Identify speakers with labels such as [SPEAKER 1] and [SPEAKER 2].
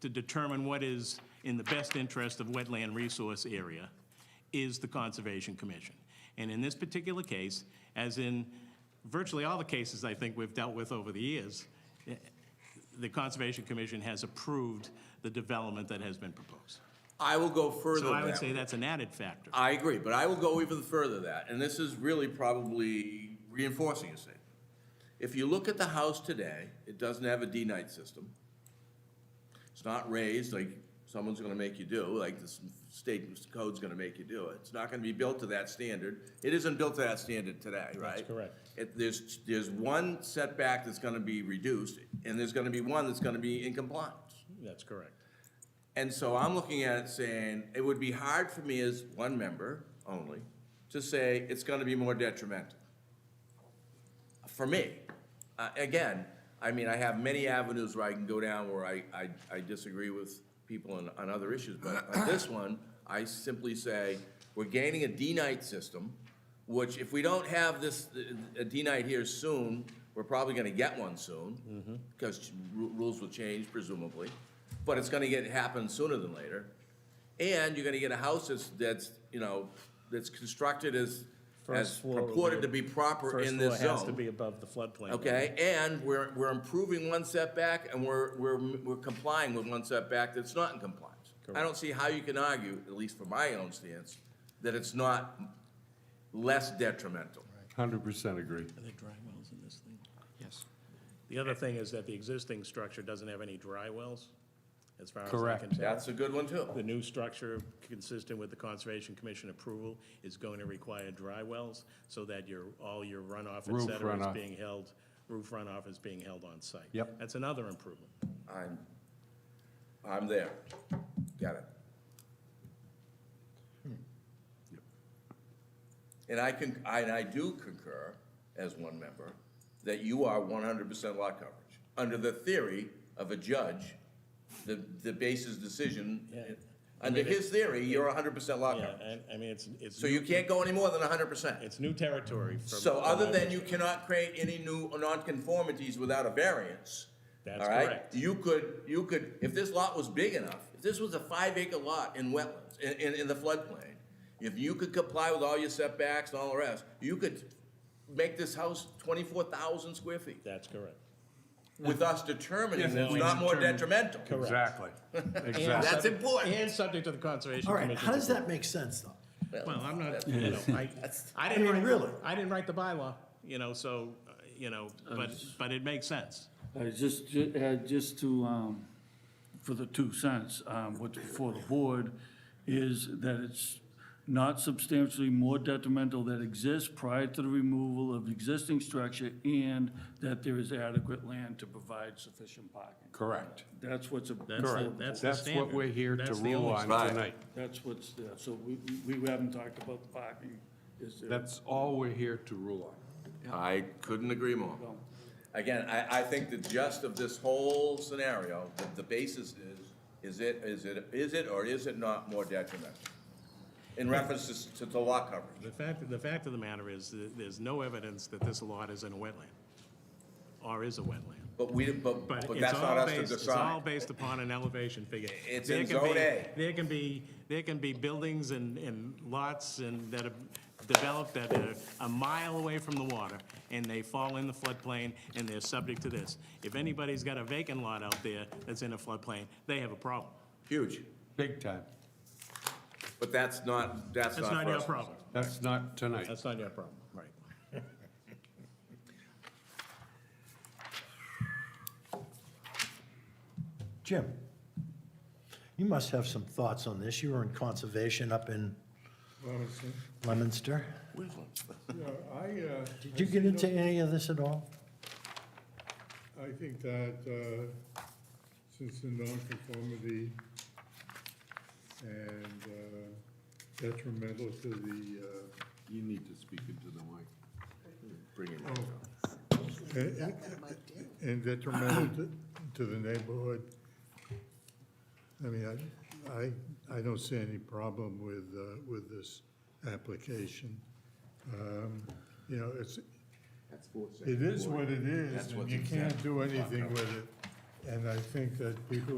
[SPEAKER 1] to determine what is in the best interest of wetland resource area is the Conservation Commission. And in this particular case, as in virtually all the cases I think we've dealt with over the years, eh, the Conservation Commission has approved the development that has been proposed.
[SPEAKER 2] I will go further
[SPEAKER 1] So I
[SPEAKER 2] than
[SPEAKER 1] would say
[SPEAKER 2] that.
[SPEAKER 1] that's an added factor.
[SPEAKER 2] I agree, but I will go even further than that, and this is really probably reinforcing a statement. If you look at the house today, it doesn't have a D-night system. It's not raised like someone's gonna make you do, like the s- state code's gonna make you do it. It's not gonna be built to that standard. It isn't built to that standard today, right?
[SPEAKER 3] correct.
[SPEAKER 2] It, there's, there's one setback that's gonna be reduced, and there's gonna be one that's gonna be in compliance.
[SPEAKER 3] That's correct.
[SPEAKER 2] And so I'm looking at it saying, it would be hard for me as one member only to say it's gonna be more detrimental. For me, uh, again, I mean, I have many avenues where I can go down where I, I, I disagree with people on, on other issues, but on this one, I simply say, we're gaining a D-night system, which if we don't have this, a D-night here soon, we're probably gonna get one
[SPEAKER 3] Mm-hmm.
[SPEAKER 2] soon, because rules will change presumably, but it's gonna get, happen sooner than later. And you're gonna get a house that's, that's, you know, that's constructed as, as
[SPEAKER 3] First floor will be-
[SPEAKER 2] purported to be proper in this zone.
[SPEAKER 3] First floor has to be above the floodplain.
[SPEAKER 2] Okay, and we're, we're improving one setback and we're, we're, we're complying with one setback that's not in compliance. I don't see how you can argue, at least from my own stance, that it's not less detrimental.
[SPEAKER 4] Hundred percent agree.
[SPEAKER 5] Yes.
[SPEAKER 3] The other thing is that the existing structure doesn't have any dry wells, as far as I can
[SPEAKER 4] Correct.
[SPEAKER 3] tell.
[SPEAKER 2] That's a good one too.
[SPEAKER 3] The new structure, consistent with the Conservation Commission approval, is going to require dry wells so that your, all your runoff, et
[SPEAKER 4] Roof
[SPEAKER 3] cetera, is
[SPEAKER 4] runoff.
[SPEAKER 3] being held, roof runoff is being held on site.
[SPEAKER 4] Yep.
[SPEAKER 3] That's another improvement.
[SPEAKER 2] I'm, I'm there. Got it. And I can, I, and I do concur, as one member, that you are one hundred percent lot coverage. Under the theory of a judge, the, the basis decision,
[SPEAKER 3] Yeah.
[SPEAKER 2] under his theory, you're hundred percent lot
[SPEAKER 3] Yeah,
[SPEAKER 2] coverage.
[SPEAKER 3] and, I mean, it's, it's,
[SPEAKER 2] So you
[SPEAKER 3] new-
[SPEAKER 2] can't go any more than hundred percent.
[SPEAKER 3] it's new territory from.
[SPEAKER 2] So
[SPEAKER 3] from
[SPEAKER 2] other
[SPEAKER 3] my
[SPEAKER 2] than you cannot create any new nonconformities without a variance,
[SPEAKER 3] That's
[SPEAKER 2] all right?
[SPEAKER 3] correct.
[SPEAKER 2] You could, you could, if this lot was big enough, if this was a five acre lot in wetlands, in, in, in the floodplain, if you could comply with all your setbacks and all the rest, you could make this house twenty-four thousand square feet
[SPEAKER 3] That's correct.
[SPEAKER 2] with us determining
[SPEAKER 4] Yes,
[SPEAKER 2] that it's
[SPEAKER 4] we
[SPEAKER 2] not more
[SPEAKER 4] determine-
[SPEAKER 2] detrimental.
[SPEAKER 4] Exactly, exactly.
[SPEAKER 2] That's important.
[SPEAKER 3] And subject to the Conservation
[SPEAKER 6] All
[SPEAKER 3] Commission.
[SPEAKER 6] right, how does that make sense, though?
[SPEAKER 3] Well, I'm not, you know, I, I
[SPEAKER 6] I
[SPEAKER 3] didn't
[SPEAKER 6] mean,
[SPEAKER 3] write,
[SPEAKER 6] really.
[SPEAKER 3] the- I didn't write the bylaw, you know, so, uh, you know, but, but it makes sense.
[SPEAKER 5] Uh, Just, ju- uh, just to, um, for the two cents, um, what's before the board is that it's not substantially more detrimental that exists prior to the removal of existing structure and that there is adequate land to provide sufficient parking.
[SPEAKER 4] Correct.
[SPEAKER 5] That's what's. before
[SPEAKER 3] That's, the-
[SPEAKER 5] the
[SPEAKER 3] that's the
[SPEAKER 4] That's
[SPEAKER 3] standard.
[SPEAKER 4] what we're here to
[SPEAKER 3] That's the
[SPEAKER 4] rule
[SPEAKER 3] only
[SPEAKER 4] on
[SPEAKER 2] Right.
[SPEAKER 4] tonight.
[SPEAKER 5] That's what's there, so we, we we haven't talked about the parking, is there?
[SPEAKER 4] That's all we're here to rule on.
[SPEAKER 2] I couldn't agree more. Again, I, I think the gist of this whole scenario, the, the basis is, is it, is it, is it or is it not more detrimental? In reference to, s- to the lot coverage.
[SPEAKER 3] The fact, the fact of the matter is, that there's no evidence that this lot is in a wetland, or is a wetland.
[SPEAKER 2] But we, didn't- but,
[SPEAKER 3] But
[SPEAKER 2] but
[SPEAKER 3] it's
[SPEAKER 2] that's not
[SPEAKER 3] all
[SPEAKER 2] us to
[SPEAKER 3] based, it's all
[SPEAKER 2] decide.
[SPEAKER 3] based upon an elevation figure.
[SPEAKER 2] It's
[SPEAKER 3] There
[SPEAKER 2] in
[SPEAKER 3] can be-
[SPEAKER 2] Zone A.
[SPEAKER 3] There can be, there can be buildings and, and lots and that are developed that are a mile away from the water, and they fall in the floodplain, and they're subject to this. If anybody's got a vacant lot out there that's in a floodplain, they have a problem.
[SPEAKER 2] Huge.
[SPEAKER 4] Big time.
[SPEAKER 2] But that's not, that's not
[SPEAKER 3] That's
[SPEAKER 2] for
[SPEAKER 3] not your
[SPEAKER 2] us.
[SPEAKER 3] problem.
[SPEAKER 4] That's not tonight.
[SPEAKER 3] That's not your problem, right.
[SPEAKER 6] Jim, you must have some thoughts on this. You were in conservation up in
[SPEAKER 7] Robinson.
[SPEAKER 6] Leominster.
[SPEAKER 7] Yeah, I, uh,
[SPEAKER 6] Did you get into any of this at all?
[SPEAKER 7] I think that, uh, since the nonconformity and uh, detrimental to the, uh,
[SPEAKER 4] You need to speak into the mic.
[SPEAKER 2] Bring it.
[SPEAKER 7] uh, and- and detrimental to, to the neighborhood, I mean, I, I, I don't see any problem with, uh, with this application. Um, You know, it's, It is what it is, and you can't do anything with it. And I think that people